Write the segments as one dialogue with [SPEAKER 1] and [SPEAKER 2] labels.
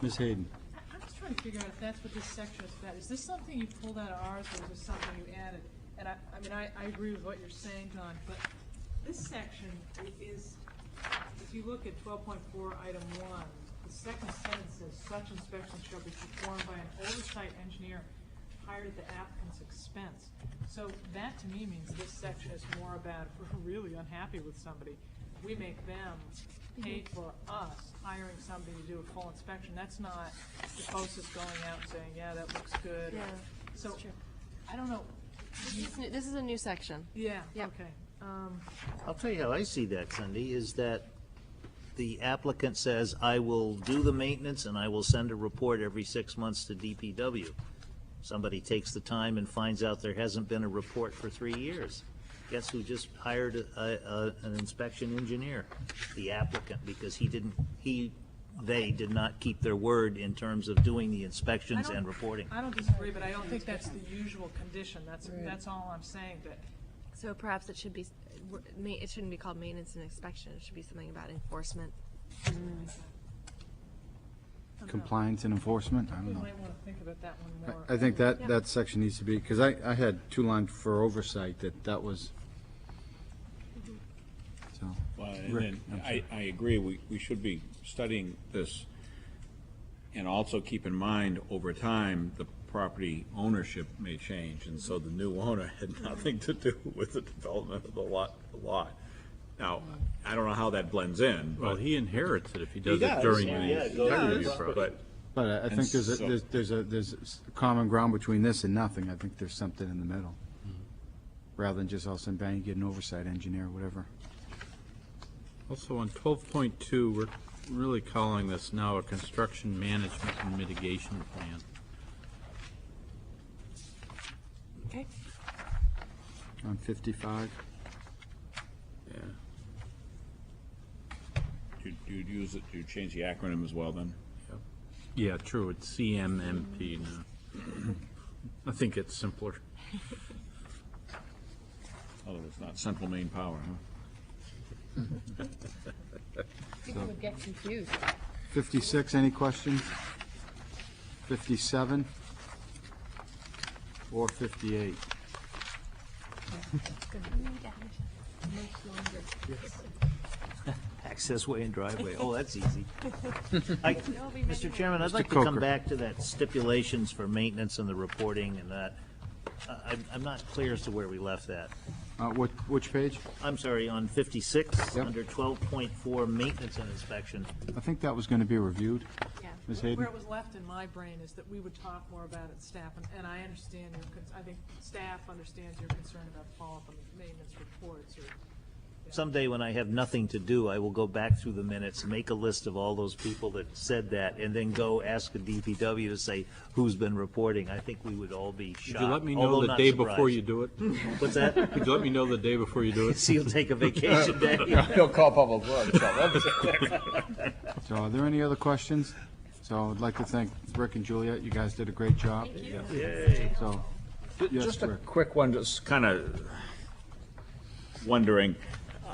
[SPEAKER 1] Ms. Hayden?
[SPEAKER 2] I- I'm just trying to figure out if that's what this section is about. Is this something you pulled out of ours, or is this something you added? And I, I mean, I, I agree with what you're saying, Don, but this section i- is, if you look at twelve point four, item one, the second sentence says, such inspections shall be performed by an oversight engineer hired at the applicant's expense. So that to me means this section is more about, if we're really unhappy with somebody, we make them pay for us hiring somebody to do a full inspection. That's not the post is going out and saying, yeah, that looks good. or-
[SPEAKER 3] Yeah,
[SPEAKER 2] So,
[SPEAKER 3] true.
[SPEAKER 2] I don't know,
[SPEAKER 3] This is new- This is a new section.
[SPEAKER 2] yeah,
[SPEAKER 3] Yeah.
[SPEAKER 2] okay. Um,
[SPEAKER 4] I'll tell you how I see that, Cindy, is that the applicant says, I will do the maintenance and I will send a report every six months to DPW. Somebody takes the time and finds out there hasn't been a report for three years. Guess who just hired a, a, an inspection engineer? The applicant, because he didn't, he, they did not keep their word in terms of doing the
[SPEAKER 2] I
[SPEAKER 4] inspections
[SPEAKER 2] don't-
[SPEAKER 4] and reporting.
[SPEAKER 2] I don't disagree, but I don't think that's the usual condition. That's, that's all I'm saying, but
[SPEAKER 3] So perhaps it should be, s- w- ma- it shouldn't be called maintenance and inspection. It should be something about enforcement.
[SPEAKER 5] Compliance and enforcement, I
[SPEAKER 2] we
[SPEAKER 5] don't know.
[SPEAKER 2] might want to think about that one more.
[SPEAKER 5] I I think that, that section needs to be, because I, I had two lines for oversight, that, that was, so.
[SPEAKER 6] Well, and
[SPEAKER 5] Rick, I'm
[SPEAKER 6] then, I, I agree, we, we should be studying this, and also keep in mind, over time, the property ownership may change, and so the new owner had nothing to do with the development of the lot, the lot. Now, I don't know how that blends in,
[SPEAKER 1] Well,
[SPEAKER 6] but
[SPEAKER 1] he inherits it if he does it during the integrity review process.
[SPEAKER 6] but
[SPEAKER 5] But I- I think there's, a
[SPEAKER 6] so-
[SPEAKER 5] there's- there's a, there's s- common ground between this and nothing. I think there's something in the middle. Rather than just all of a sudden, bang, you get an oversight engineer, whatever.
[SPEAKER 1] Also, on twelve point two, we're really calling this now a construction management and mitigation plan.
[SPEAKER 3] Okay.
[SPEAKER 5] On 55,
[SPEAKER 1] Yeah.
[SPEAKER 6] you, you'd use it, you'd change the acronym as well then?
[SPEAKER 1] Yeah, true, it's CMMP now. I think it's simpler.
[SPEAKER 6] Although it's not Central Maine Power, huh?
[SPEAKER 7] People would get confused.
[SPEAKER 5] 56, any questions? 57? Or 58?
[SPEAKER 4] Access way and driveway, oh, that's easy. I- Mr. Chairman, I'd like
[SPEAKER 5] Mr.
[SPEAKER 4] to come
[SPEAKER 5] Coker.
[SPEAKER 4] back to that stipulations for maintenance and the reporting and that. I- I'm, I'm not clear as to where we left that.
[SPEAKER 5] Uh, what, which page?
[SPEAKER 4] I'm sorry, on 56,
[SPEAKER 5] Yep.
[SPEAKER 4] under 12.4, maintenance and inspection.
[SPEAKER 5] I think that was going to be reviewed.
[SPEAKER 3] Yeah.
[SPEAKER 5] Ms.
[SPEAKER 2] Where
[SPEAKER 5] Hayden?
[SPEAKER 2] it was left in my brain is that we would talk more about it, staff, and, and I understand your, cons- I think staff understands your concern about follow-up on maintenance reports or
[SPEAKER 4] Someday when I have nothing to do, I will go back through the minutes, make a list of all those people that said that, and then go ask the DPW to say who's been reporting. I think we would all be shocked,
[SPEAKER 1] Could you let me
[SPEAKER 4] although
[SPEAKER 1] know the
[SPEAKER 4] not
[SPEAKER 1] day before
[SPEAKER 4] surprised.
[SPEAKER 1] you do it?
[SPEAKER 4] What's that?
[SPEAKER 1] Could you let me know the day before you do it?
[SPEAKER 4] So you'll take a vacation day?
[SPEAKER 8] He'll call Public Works, tell them.
[SPEAKER 5] So are there any other questions? So I'd like to thank Rick and Juliet. You guys did a great job. So, yes,
[SPEAKER 6] Just a
[SPEAKER 5] Rick.
[SPEAKER 6] quick one, just kind of wondering,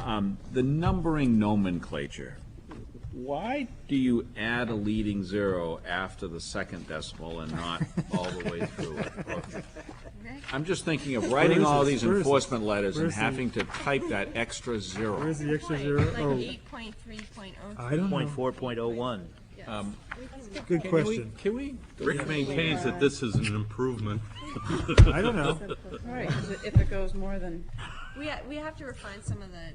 [SPEAKER 6] um, the numbering nomenclature, why do you add a leading zero after the second decimal and not all the way through? it? I'm just thinking of writing
[SPEAKER 9] is
[SPEAKER 6] all
[SPEAKER 9] this?
[SPEAKER 6] these
[SPEAKER 9] Where is this?
[SPEAKER 6] enforcement letters
[SPEAKER 9] Where
[SPEAKER 6] and
[SPEAKER 9] is the-
[SPEAKER 6] having to type that extra zero.
[SPEAKER 9] Where's the extra
[SPEAKER 7] Point,
[SPEAKER 9] zero?
[SPEAKER 7] Like
[SPEAKER 9] Oh,
[SPEAKER 7] eight point three point oh
[SPEAKER 9] I don't know.
[SPEAKER 4] Point four, point oh one.
[SPEAKER 9] Good
[SPEAKER 1] Can we-
[SPEAKER 9] question.
[SPEAKER 1] Can we, Rick maintains that this is an improvement.
[SPEAKER 9] I don't know.
[SPEAKER 10] Right, 'cause if it goes more than
[SPEAKER 3] We, ha- we have to refine some of the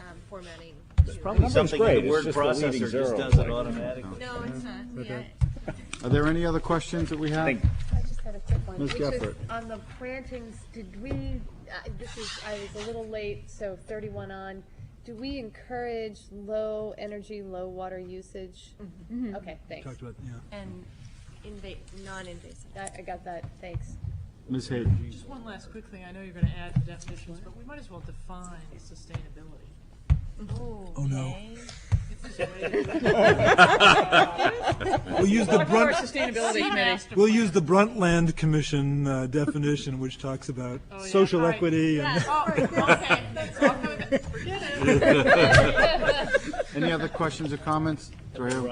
[SPEAKER 3] um, formatting. too.
[SPEAKER 4] Probably something in
[SPEAKER 6] great,
[SPEAKER 4] the
[SPEAKER 6] it's
[SPEAKER 4] word
[SPEAKER 6] just the leading
[SPEAKER 4] processor just
[SPEAKER 6] zero.
[SPEAKER 4] does it automatically.
[SPEAKER 3] No, it's not. Yeah.
[SPEAKER 5] Are there any other questions that we have?
[SPEAKER 7] I just had a quick one.
[SPEAKER 5] Ms.
[SPEAKER 7] which is
[SPEAKER 5] Gephardt.
[SPEAKER 7] On the plantings, did we, uh, this is, I was a little late, so thirty-one on. Do we encourage low energy, low water usage? Mm-hmm. Okay, thanks.
[SPEAKER 9] Talked about, yeah.
[SPEAKER 3] And invade, non-invasive.
[SPEAKER 7] I, I got that, thanks.
[SPEAKER 5] Ms. Hayden?
[SPEAKER 2] Just one last quick thing, I know you're gonna add the definitions, but we might as well define sustainability.
[SPEAKER 9] Oh, no.
[SPEAKER 2] It's just-
[SPEAKER 9] We'll use the
[SPEAKER 10] our
[SPEAKER 9] brunt,
[SPEAKER 10] sustainability committee.
[SPEAKER 2] Master
[SPEAKER 9] we'll
[SPEAKER 2] plan.
[SPEAKER 9] use the Bruntland Commission uh, definition, which talks about
[SPEAKER 2] Oh, yeah.
[SPEAKER 9] social
[SPEAKER 2] All right.
[SPEAKER 9] equity and
[SPEAKER 2] Oh, okay, that's all coming, forget it.
[SPEAKER 5] Any other questions or comments? Do I have-